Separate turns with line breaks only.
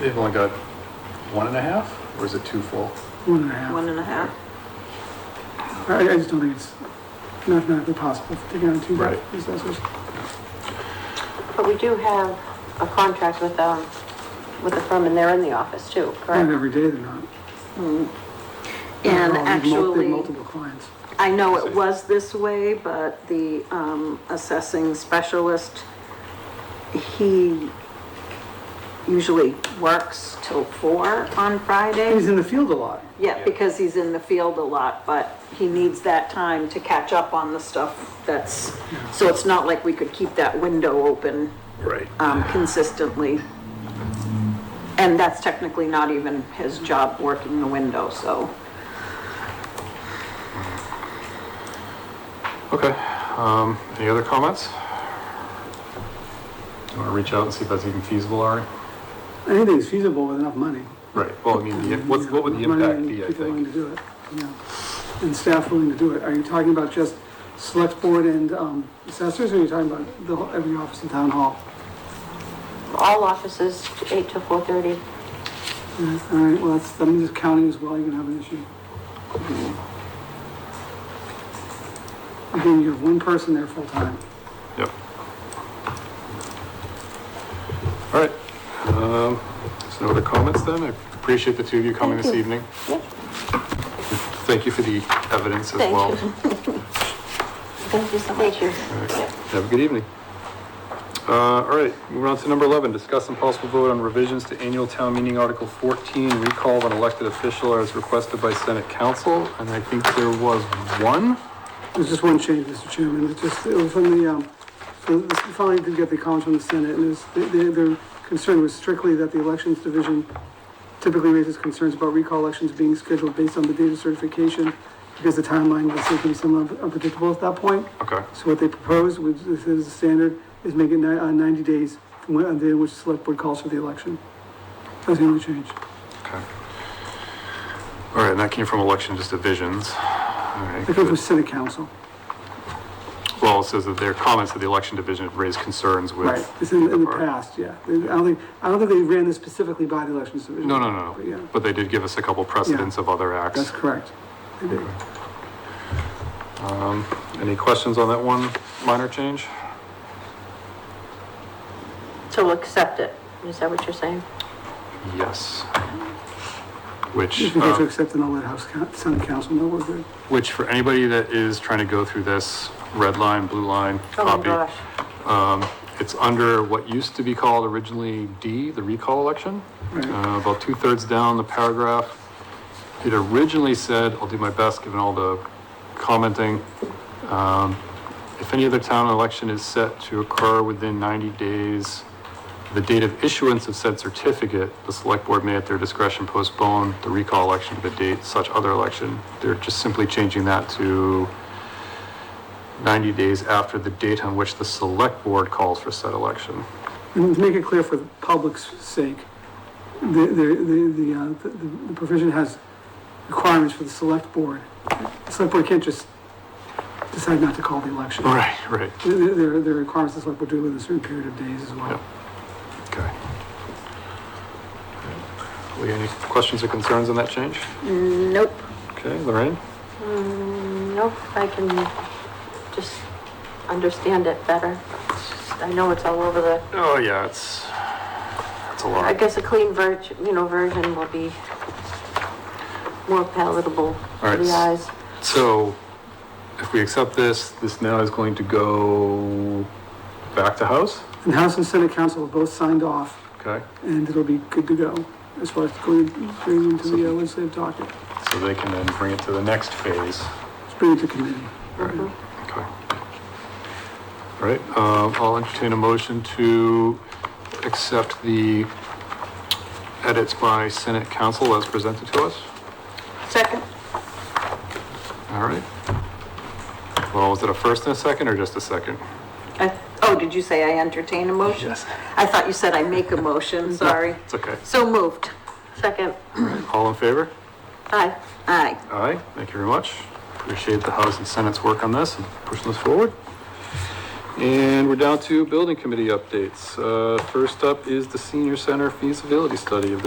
They've only got one and a half, or is it two full?
One and a half.
One and a half?
I, I just don't think it's mathematically possible to get on two
Right.
assessors.
But we do have a contract with, um, with the firm, and they're in the office too,
Not
correct?
every day they're not.
And
They're all- they've mul- they've
actually,
Multiple clients.
I know it was this way, but the um, assessing specialist, he usually works till four on
He's
Fridays.
in the field a lot.
Yeah, because he's in the field a lot, but he needs that time to catch up on the stuff that's, so it's not like we could keep that window open
Right.
um, consistently. And that's technically not even his job, working the window, so.
Okay, um, any other comments? You wanna reach out and see if that's even feasible, Ari?
I think it's feasible with enough money.
Right, well, I mean, the- what's, what would the
Enough money
impact
and
be, I
People willing to
think?
do it, yeah. And staff willing to do it. Are you talking about just select board and, um, assessors, or are you talking about the, whole- every office in town hall?
All offices, eight to four thirty.
Yeah, All right, well, that's, that means counting as well, you're gonna have an issue. Again, you have one person there full-time.
Yep. All right, um, so no other comments then? I appreciate the two of you coming this evening.
Yep.
Thank you for the evidence as
Thank
well.
you. Thank you so much. Thank you. Yep.
Have a good evening. Uh, all right, moving on to number eleven, discuss and possible vote on revisions to annual town meeting article fourteen, recall of an elected official as requested by Senate Council, and I think there was one.
There's just one change, Mr. Chairman, it's just, it was from the, um, so this finally did get the comments from the Senate, and it's, their, their concern was strictly that the Elections Division typically raises concerns about recall elections being scheduled based on the date of certification, because the timeline was simply somewhat unpredictable at that point.
Okay.
So what they proposed, which this is the standard, is make it ni- uh, ninety days from when, on the day which the select board calls for the election. That's the only change.
Okay. All right, and that came from election just divisions. All right,
That comes
good.
with Senate Council,
Well, it says that their comments to the election division have raised concerns with.
right? This is in the
Or-
past, yeah. I don't think, I don't think they ran this specifically by the elections division.
No, no, no,
But yeah,
no, but they did give us a couple precedents of other
that's
acts.
correct.
Uh.
They did.
Um, Any questions on that one minor change?
So we'll accept it. Is that what you're saying?
Yes. Which.
If we get
uh,
to accept and all that House, Coun- Senate Council, no, we're good.
Which for anybody that is trying to go through this red line, blue line
Oh my
copy,
gosh.
it's under what used to be called originally D, the recall election.
Right.
Uh, about two thirds down the paragraph. It originally said, I'll do my best given all the commenting. um, If any other town election is set to occur within ninety days, the date of issuance of said certificate, the select board may at their discretion postpone the recall election to the date such other election. They're just simply changing that to 90 days after the date on which the select board calls for said election.
And to make it clear for the public's sake, the, the, the, the, uh, the- the provision has requirements for the select board. The select board can't just decide not to call the election.
Right, right.
There, there there are requirements the select board do within a certain period of days as well.
Okay. Lee, any questions or concerns on that change?
Nope,
Okay, Lorraine?
nope. I can just understand it better. I know it's all over the,
Oh, yeah, it's, it's a
I
lot.
guess a clean ver, you know, version will be more palatable
All
to
right,
the
s-
eyes.
So if we accept this, this now is going to go back to House?
And House and Senate Council have both signed off,
Okay,
and it'll be good to go as far as going, bringing into the uh, legislative docket.
so they can then bring it to the next phase.
Let's bring it to committee.
Mm-hmm.
Okay. All right, uh, I'll entertain a motion to accept the edits by Senate Council as presented to us.
Second?
All right. Well, was it a first and a second, or just a second?
I- Oh, did you say I entertain a motion?
Yes.
I thought you said I make a motion, sorry.
It's okay.
So moved.
Second,
All in favor?
aye.
Aye.
Aye, thank you very much. Appreciate the House and Senate's work on this and pushing this forward. And we're down to building committee updates. Uh, First up is the senior center feasibility study of the